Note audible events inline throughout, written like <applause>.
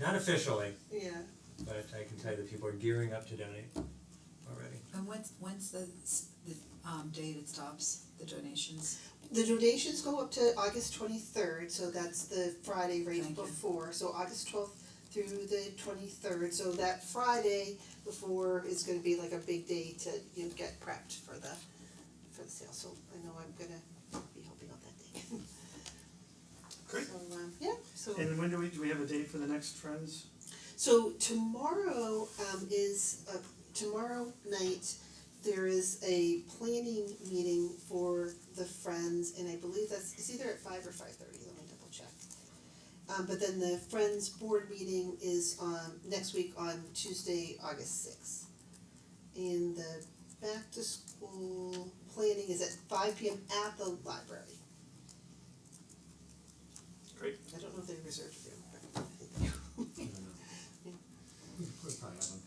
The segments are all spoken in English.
not officially, yeah, but I can tell you that people are gearing up to donate already. And when's when's the s- the um date it stops, the donations? the donations go up to August twenty third, so that's the Friday right Thank you. before, so August twelfth through the twenty third, so that Friday before is gonna be like a big day to, you know, get prepped for the for the sale, so I know I'm gonna be helping out that day. Great. So um, yeah, so. And when do we, do we have a date for the next Friends? So tomorrow um is uh tomorrow night, there is a planning meeting for the Friends and I believe that's it's either at five or five thirty, let me double check. Um but then the Friends board meeting is um next week on Tuesday, August sixth. And the back to school planning is at five P M at the library. Great. I don't know if they reserved a room, but I think they <laughs> I don't know. We probably have them.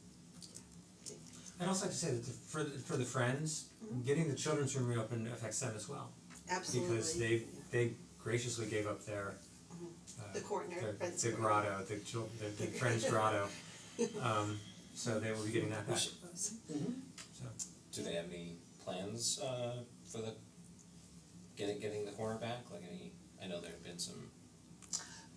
I'd also like to say that the- for the for the friends, getting the children's room reopened affects them as well. Mm-hmm. Absolutely. Because they they graciously gave up their uh Mm-hmm. The corner, their- Friends the corner. grotto, the chil- the the friends <laughs> grotto. Um so they will be getting that back, so. Do they have any plans uh for the getting getting the corner back? Like any, I know there have been some,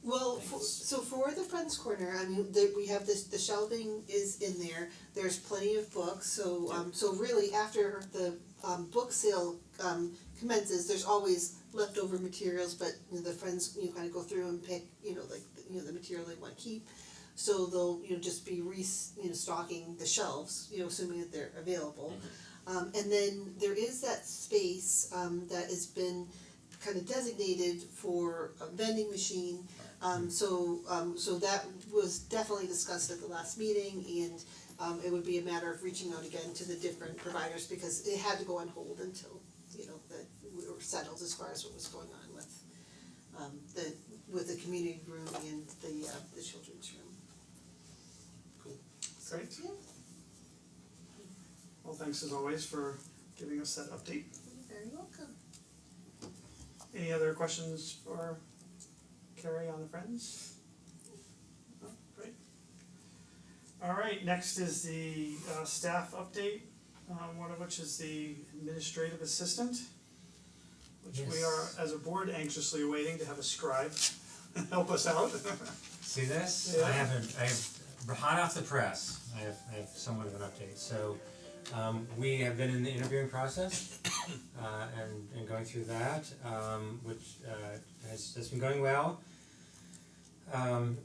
Well, for, Thanks. so for the Friends Corner, I mean, the, we have this, the shelving is in there, there's plenty of books, so, um, so really after the, um, book sale, um, commences, there's always leftover materials, but you know, the friends, you kind of go through and pick, you know, like, you know, the material they wanna keep. So they'll, you know, just be re, you know, stocking the shelves, you know, assuming that they're available. Um, and then there is that space, um, that has been kind of designated for a vending machine. Um, so, um, so that was definitely discussed at the last meeting and, um, it would be a matter of reaching out again to the different providers because it had to go on hold until, you know, that we were settled as far as what was going on with, um, the, with the community room and the, uh, the children's room. Cool. So, Great. yeah, Well, thanks as always for giving us that update. you're very welcome. Any other questions for Carrie on the Friends? No, great. Alright, next is the uh staff update, um one of which is the administrative assistant. Which we are, Yes. as a board, anxiously awaiting to have a scribe <laughs> help us out. See this? Yeah. I haven't, I have, hot off the press, I have, I have somewhat of an update, so um we have been in the interviewing process <coughs> uh and and going through that, um which uh has has been going well. Um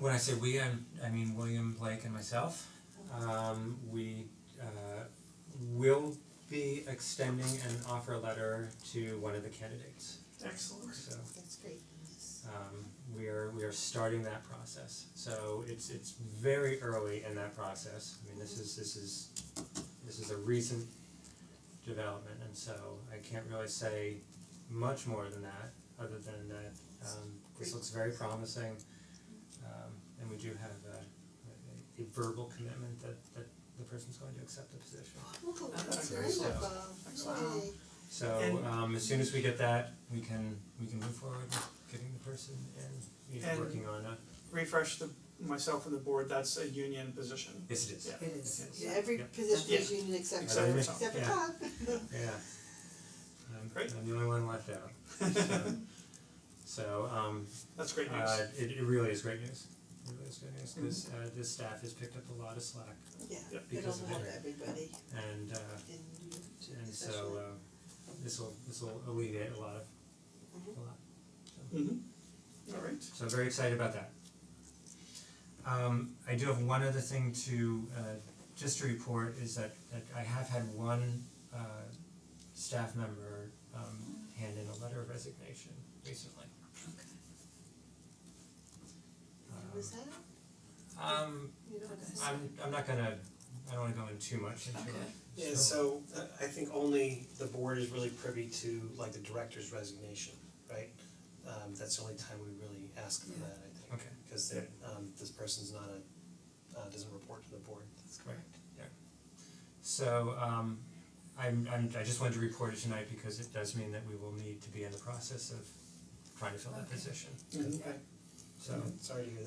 when I say we, I'm, I mean William, Blake and myself, um we uh will be extending an offer letter to one of the candidates, Excellent. so That's great. um we are we are starting that process. So it's it's very early in that process. I mean, this is this is this is a recent development and so I can't really say much more than that, other than that um this looks very promising. Um and we do have a a- a verbal commitment that that the person's going to accept the position. Oh, that's Okay, so- wonderful. Excellent. Yay. So And- um as soon as we get that, we can we can move forward with getting the person and you know And- working on a Refresh the myself and the board, that's a union position. yes it is. Yeah. It is, Yeah, every Yeah. position is Yeah. union except Except for, for except for Tom. Tom. <laughs> Yeah. I'm Um, Great. I'm the only one left <laughs> out. So- So um That's great news. uh it it really is great news. It really is good news Mm-hmm. because uh this staff has picked up a lot of slack Yeah, Yeah. it'll Because of help that. everybody and uh in you. and so Especially. uh this will this will alleviate a lot of Mm-hmm. a lot. Mhm. Alright. So very excited about that. Um I do have one other thing to uh just to report is that that I have had one uh staff member um hand in a letter of resignation recently. Who was that? Um um You know, Okay. I'm I'm not gonna I don't wanna go in too much into Okay. it. Yeah, so uh, I think only the board is really privy to like the director's resignation, right? Um that's the only time we really ask for Yeah. that, I think. Okay. Cause they're, um this person's not a, uh doesn't report to the board. that's Right, correct. yeah. So um I'm I'm I just wanted to report it tonight because it does mean that we will need to be in the process of trying to fill that Okay. position, Mhm. so. Sorry to hear that.